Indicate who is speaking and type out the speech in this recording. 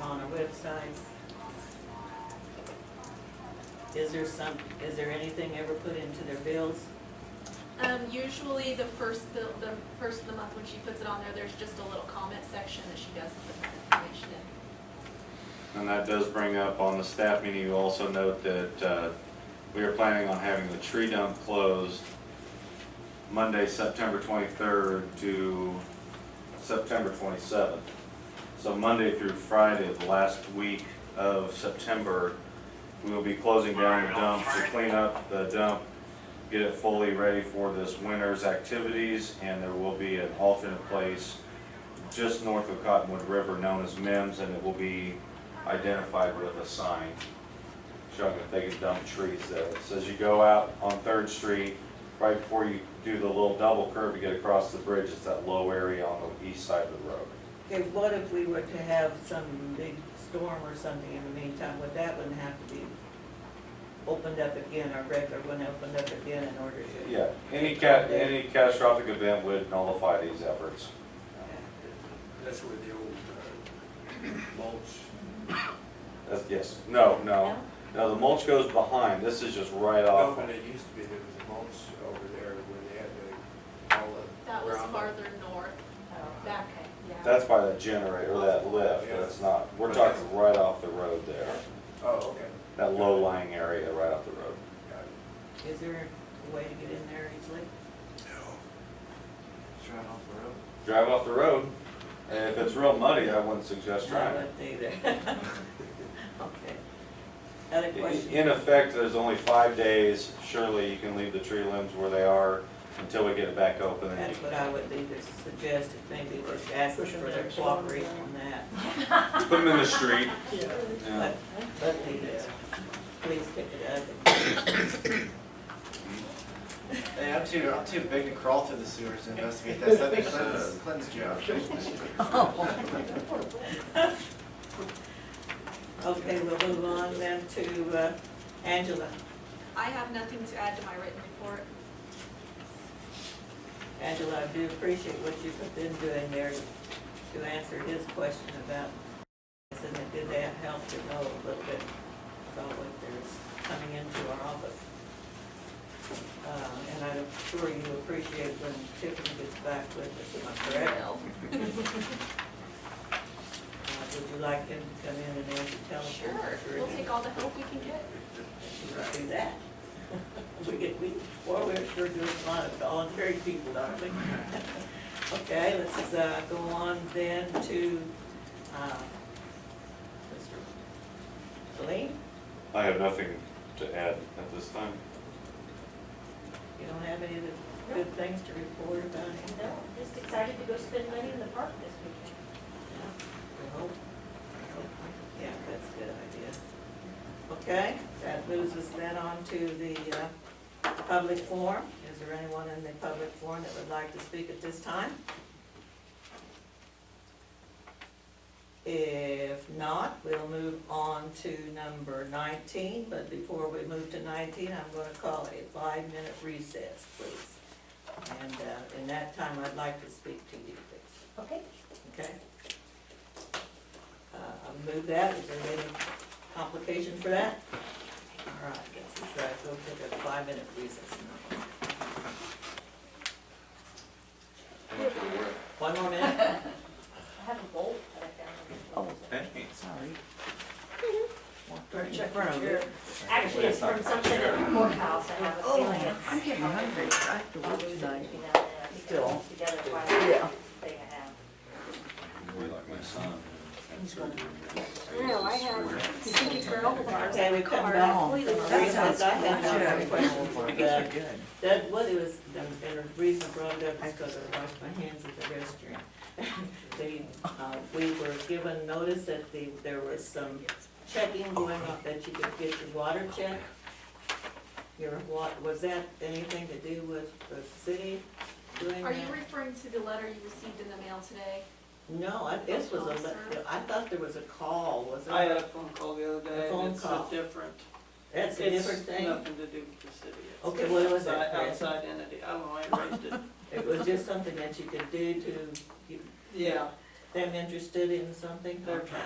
Speaker 1: on our websites. Is there some, is there anything ever put into their bills?
Speaker 2: Um, usually the first, bill- the first of the month when she puts it on there, there's just a little comment section that she does put that information in.
Speaker 3: And that does bring up on the staff meeting, you also note that uh, we are planning on having the tree dump closed Monday, September 23rd to September 27th. So Monday through Friday, of the last week of September, we will be closing down the dump to clean up the dump, get it fully ready for this winter's activities, and there will be an alternate place just north of Cottonwood River known as Mims, and it will be identified with a sign showing that they can dump trees there. It says you go out on Third Street, right before you do the little double curve, you get across the bridge, it's that low area on the east side of the road.
Speaker 1: Okay, what if we were to have some big storm or something in the meantime, would that wouldn't have to be opened up again, our regular one opened up again in order to?
Speaker 3: Yeah, any cat, any catastrophic event would nullify these efforts.
Speaker 4: That's where the old uh, mulch.
Speaker 3: That's, yes, no, no.
Speaker 2: No?
Speaker 3: No, the mulch goes behind, this is just right
Speaker 4: No,
Speaker 3: off.
Speaker 4: when it used to be, there was a mulch over there when they had the, all the.
Speaker 2: That was
Speaker 4: ground.
Speaker 2: farther north, back, yeah.
Speaker 3: That's by that generator, that lift, that's not, we're talking right off the road there.
Speaker 4: Oh, okay.
Speaker 3: That low-lying area right off the road.
Speaker 4: Got it.
Speaker 1: Is there a way to get in there easily?
Speaker 4: It's right off the road.
Speaker 3: drive off the road. And if it's real muddy, I wouldn't suggest
Speaker 1: No,
Speaker 3: trying
Speaker 1: I
Speaker 3: it.
Speaker 1: wouldn't either. Okay. Other questions?
Speaker 3: In effect, there's only five days. Surely you can leave the tree limbs where they are until we get it back open. and
Speaker 1: That's
Speaker 3: you-
Speaker 1: what I would either suggest, if maybe just ask them for their cooperation on that.
Speaker 3: Put them in the street. Yeah.
Speaker 1: But, but the, uh, please pick it up.
Speaker 5: Hey, I'm too, I'm too big to crawl through the sewers to investigate this. I think Clinton's, Clinton's job.
Speaker 1: Okay, we'll move on then to uh, Angela.
Speaker 2: I have nothing to add to my written report.
Speaker 1: Angela, I do appreciate what you have been doing there to answer his question about this, and it did that help to know a little bit about what there's coming into our office. Uh, And I'm sure you appreciate when Tiffany gets back with us, am I correct?
Speaker 2: Bill.
Speaker 1: Uh, Would you like him to come in and answer, tell us?
Speaker 2: Sure, we'll take all the help we can get.
Speaker 1: Let's Do that. We get, we, or we're sure doing a lot of voluntary people, aren't we? Okay, let's, uh, go on then to, uh, Mr. Celine,
Speaker 3: I have nothing to add at this time.
Speaker 1: you don't have any of the good things to report about him?
Speaker 6: No, just excited to go spend money in the park this weekend.
Speaker 1: I hope, I hope, yeah, that's a good idea. Okay, that moves us then on to the uh, public forum. Is there anyone in the public forum that would like to speak at this time? If not, we'll move on to number 19, but before we move to 19, I'm going to call a five-minute recess, please. And uh, in that time, I'd like to speak to you, please.
Speaker 6: Okay.
Speaker 1: Okay. Uh, I'll move that, is there any complication for that? All right, I guess it's, uh, we'll take a five-minute recess. One more minute?
Speaker 6: I have a bolt that I found.
Speaker 3: Oh.
Speaker 1: Check for him.
Speaker 6: Actually, it's from something in the courthouse, I have a feeling it's. Oh, I'm getting hungry, I have to work tonight. Still. Together quite a thing I have.
Speaker 3: like my son.
Speaker 6: No, I have, you see, for old cars.
Speaker 1: Okay, we come back. Recess, I had one question. Uh,
Speaker 7: good.
Speaker 1: That, what it was, the the reason I brought it up is because I washed my hands at the restaurant. They, uh, we were given notice that the, there was some checking going on, that you could get your water
Speaker 8: Oh,
Speaker 1: check. Your wa, was that anything to do with the city doing
Speaker 2: Are you
Speaker 1: that?
Speaker 2: referring to the letter you received in the mail today?
Speaker 1: No, I, this was a, le- I thought there was a call, was
Speaker 8: I had
Speaker 1: there?
Speaker 8: a phone call the other
Speaker 1: A
Speaker 8: day,
Speaker 1: phone
Speaker 8: and it's a
Speaker 1: call.
Speaker 8: different.
Speaker 1: That's a different
Speaker 8: It's
Speaker 1: thing.
Speaker 8: nothing to do with the city. It's
Speaker 1: Okay, what was
Speaker 8: outside-
Speaker 1: that, Fred?
Speaker 8: Outside entity, I don't know, I raised it.
Speaker 1: It was just something that you could do to, get
Speaker 8: Yeah,
Speaker 1: them interested in something?
Speaker 8: they're trying